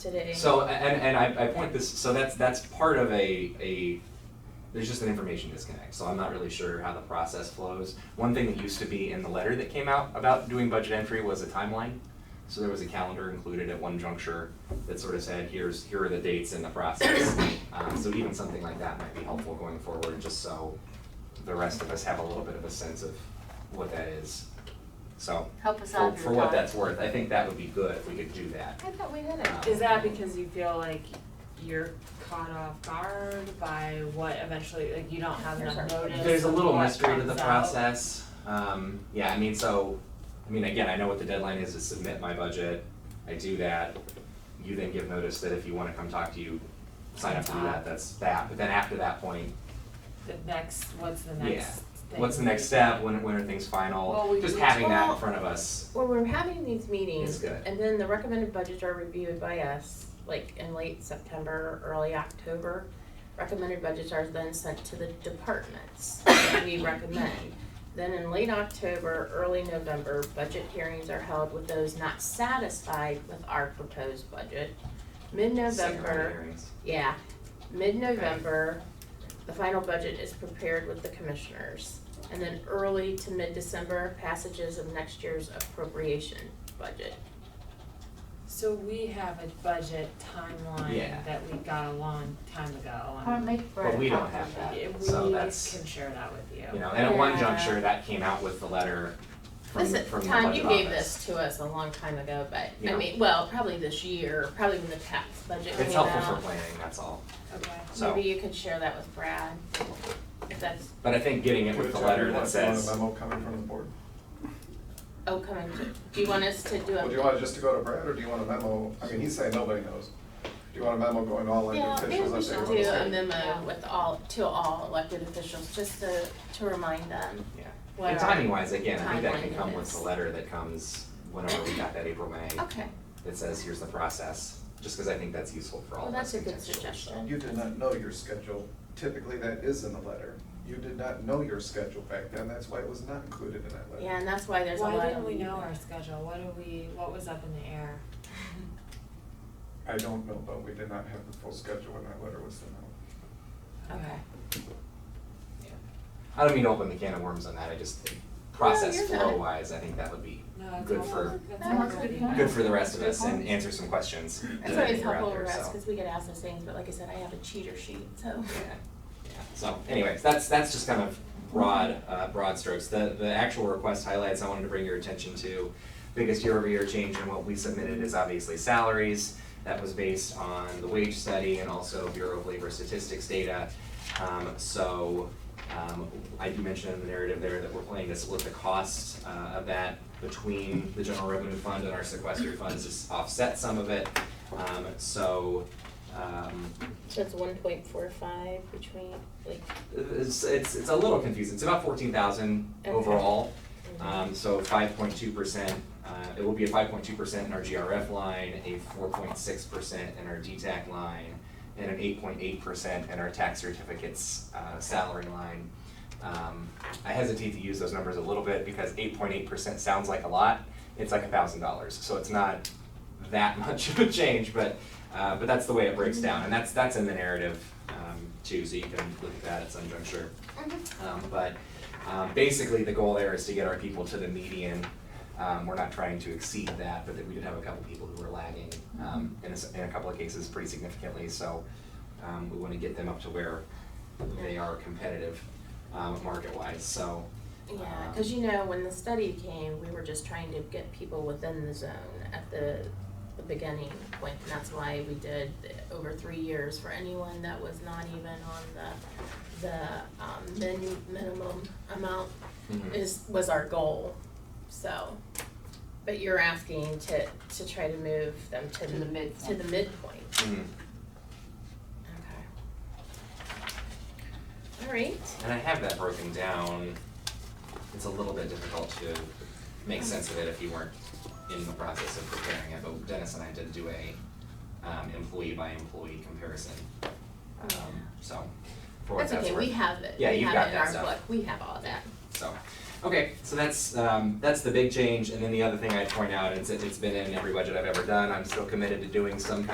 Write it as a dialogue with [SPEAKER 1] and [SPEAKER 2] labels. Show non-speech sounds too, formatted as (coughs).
[SPEAKER 1] today.
[SPEAKER 2] So and and I, I point this so that's that's part of a a there's just an information disconnect. So I'm not really sure how the process flows. One thing that used to be in the letter that came out about doing budget entry was a timeline. So there was a calendar included at one juncture that sort of said, here's here are the dates in the
[SPEAKER 3] (coughs)
[SPEAKER 2] process. um, so even something like that might be helpful going forward, just so the rest of us have a little bit of a sense of what that is. So
[SPEAKER 3] Help us
[SPEAKER 2] for,
[SPEAKER 3] out.
[SPEAKER 2] for what that's worth, I think that would be good if we could do that.
[SPEAKER 1] I thought we had it.
[SPEAKER 4] Is that because you feel like you're caught off guard by what eventually, like you don't have enough
[SPEAKER 1] There's
[SPEAKER 4] notice?
[SPEAKER 2] There's a
[SPEAKER 4] of
[SPEAKER 2] little
[SPEAKER 4] what
[SPEAKER 2] mystery to the
[SPEAKER 4] comes out?
[SPEAKER 2] process. Um, yeah, I mean, so, I mean, again, I know what the deadline is to submit my budget. I do that. You then give notice that if you wanna come talk to you, sign up to do that, that's that. But then after that point,
[SPEAKER 4] The next, what's the
[SPEAKER 2] Yeah.
[SPEAKER 4] next thing?
[SPEAKER 2] what's the next step? When, when are things
[SPEAKER 1] Well, we-
[SPEAKER 2] final? Just
[SPEAKER 1] we
[SPEAKER 2] having that in
[SPEAKER 1] told-
[SPEAKER 2] front of us
[SPEAKER 1] When we're having these
[SPEAKER 2] is
[SPEAKER 1] meetings,
[SPEAKER 2] good.
[SPEAKER 1] and then the recommended budgets are reviewed by us, like in late September, early October. Recommended budgets are then sent to the departments that we recommend. Then in late October, early November, budget hearings are held with those not satisfied with our proposed budget.
[SPEAKER 2] Second round
[SPEAKER 1] Mid-November,
[SPEAKER 2] hearings.
[SPEAKER 1] Yeah, mid-November, the final budget is prepared with the commissioners. And then early to mid-December, passages of next year's appropriation budget.
[SPEAKER 4] So we have a budget
[SPEAKER 2] Yeah.
[SPEAKER 4] timeline that we got a long time ago
[SPEAKER 3] Or
[SPEAKER 4] and
[SPEAKER 3] make for
[SPEAKER 2] But
[SPEAKER 3] a
[SPEAKER 2] we don't
[SPEAKER 3] copy.
[SPEAKER 2] have that.
[SPEAKER 4] we
[SPEAKER 2] So
[SPEAKER 4] we can
[SPEAKER 2] that's-
[SPEAKER 4] share that with you.
[SPEAKER 2] You know, and at one
[SPEAKER 3] Yeah.
[SPEAKER 2] juncture, that came out with the letter from,
[SPEAKER 1] This,
[SPEAKER 2] from the budget office.
[SPEAKER 1] Tom, you gave this to us a long time ago, but, I
[SPEAKER 2] Yeah.
[SPEAKER 1] mean, well, probably this year, probably when the tax budget
[SPEAKER 2] It's
[SPEAKER 1] came
[SPEAKER 2] helpful for
[SPEAKER 1] out.
[SPEAKER 2] planning, that's all.
[SPEAKER 4] Okay.
[SPEAKER 2] So,
[SPEAKER 1] Maybe you could share that with Brad, if that's,
[SPEAKER 2] but I think getting it with the letter that says.
[SPEAKER 5] Do you want a memo coming from the board?
[SPEAKER 1] oh, coming to, do you want us to do a?
[SPEAKER 5] Well, do you want it just to go to Brad, or do you want a memo, I mean, he's saying nobody knows. Do you want a memo going all
[SPEAKER 1] Yeah,
[SPEAKER 5] elected
[SPEAKER 1] maybe we
[SPEAKER 5] officials that they
[SPEAKER 1] should
[SPEAKER 5] want
[SPEAKER 1] do
[SPEAKER 5] to say?
[SPEAKER 1] a memo with all, to all elected officials, just to, to remind them.
[SPEAKER 2] Yeah.
[SPEAKER 1] what
[SPEAKER 2] and
[SPEAKER 1] our-
[SPEAKER 2] timing wise, again, I think that
[SPEAKER 1] timeline
[SPEAKER 2] can
[SPEAKER 1] it
[SPEAKER 2] come with
[SPEAKER 1] is.
[SPEAKER 2] the letter that comes whenever we got that April, May,
[SPEAKER 1] Okay,
[SPEAKER 2] that says, here's the process, just because I think that's useful for all
[SPEAKER 1] well,
[SPEAKER 2] of us
[SPEAKER 1] that's a good
[SPEAKER 2] contextually.
[SPEAKER 1] suggestion.
[SPEAKER 5] You did not know your schedule, typically that is in the letter. You did not know your schedule back then, that's why it was not included in that letter.
[SPEAKER 1] Yeah, and that's why there's a lot of.
[SPEAKER 4] Why didn't we know our schedule? What do we, what was up in the air?
[SPEAKER 5] I don't know, but we did not have the full schedule when that letter was sent out.
[SPEAKER 1] Okay.
[SPEAKER 2] I don't mean to open the can of worms on that, I just, think process
[SPEAKER 1] you're
[SPEAKER 2] flow
[SPEAKER 1] fine.
[SPEAKER 2] wise, I think that would be
[SPEAKER 4] No, it's
[SPEAKER 2] Good
[SPEAKER 4] all-
[SPEAKER 2] for-
[SPEAKER 4] that's
[SPEAKER 3] No,
[SPEAKER 4] all
[SPEAKER 3] it's
[SPEAKER 4] good.
[SPEAKER 3] good point.
[SPEAKER 2] good for the rest of
[SPEAKER 3] Good
[SPEAKER 2] us and
[SPEAKER 3] point.
[SPEAKER 2] answer some
[SPEAKER 1] It's
[SPEAKER 2] questions that I
[SPEAKER 1] always
[SPEAKER 2] think are out
[SPEAKER 1] helpful
[SPEAKER 2] there,
[SPEAKER 1] for us,
[SPEAKER 2] so,
[SPEAKER 1] cause we get asked those things, but like I said, I have a cheater sheet, so.
[SPEAKER 2] Yeah, yeah, so anyways, that's, that's just kind of broad, uh, broad strokes. The, the actual request highlights I wanted to bring your attention to, biggest year-over-year change in what we submitted is obviously salaries. That was based on the wage study and also Bureau of Labor Statistics data. Um, so, um, I do mention in the narrative there that we're planning to split the cost, uh, of that between the general revenue fund and our sequester funds to offset some of it. Um, so, um,
[SPEAKER 1] So it's one point four five between, like,
[SPEAKER 2] it's, it's, it's a little confusing. It's about fourteen thousand
[SPEAKER 1] Okay.
[SPEAKER 2] overall. Um, so five point two percent, uh, it will be a five point two percent in our GRF line, a four point six percent in our DTAC line, and an eight point eight percent in our tax certificates, uh, salary line. Um, I hesitate to use those numbers a little bit because eight point eight percent sounds like a lot. It's like a thousand dollars, so it's not that (laughs) much of a change, but, uh, but that's the way it breaks down, and that's, that's in the narrative, um, too, so you can look at that at some juncture.
[SPEAKER 1] Mm-hmm.
[SPEAKER 2] Um, but, um, basically, the goal there is to get our people to the median, um, we're not trying to exceed that, but that we did have a couple people who were lagging, um, in a, s- in a couple of cases pretty significantly, so, um, we wanna get them up to where they are competitive, um, market-wise, so, um,
[SPEAKER 1] yeah, cause you know, when the study came, we were just trying to get people within the zone at the, the beginning point. And that's why we did the- over three years for anyone that was not even on the, the, um, min, minimum amount
[SPEAKER 2] mhm.
[SPEAKER 1] is, was our goal, so. But you're asking to, to try to move them to
[SPEAKER 3] To the
[SPEAKER 1] the,
[SPEAKER 3] midpoint.
[SPEAKER 1] to the midpoint,
[SPEAKER 2] Mm.
[SPEAKER 1] okay. All right,
[SPEAKER 2] And I have that broken down. It's a little bit difficult to make sense of it if you weren't in the process of preparing it, but Dennis and I did do a um employee by employee comparison. Um so for what
[SPEAKER 1] that's
[SPEAKER 2] that's
[SPEAKER 1] okay,
[SPEAKER 2] worth.
[SPEAKER 1] we have it, we
[SPEAKER 2] Yeah,
[SPEAKER 1] have it
[SPEAKER 2] you've
[SPEAKER 1] in
[SPEAKER 2] got that
[SPEAKER 1] our
[SPEAKER 2] stuff.
[SPEAKER 1] book, we have all that.
[SPEAKER 2] So, okay, so that's, um, that's the big change, and then the other thing I'd point out is that it's been in every budget I've ever done, I'm still committed to doing some kind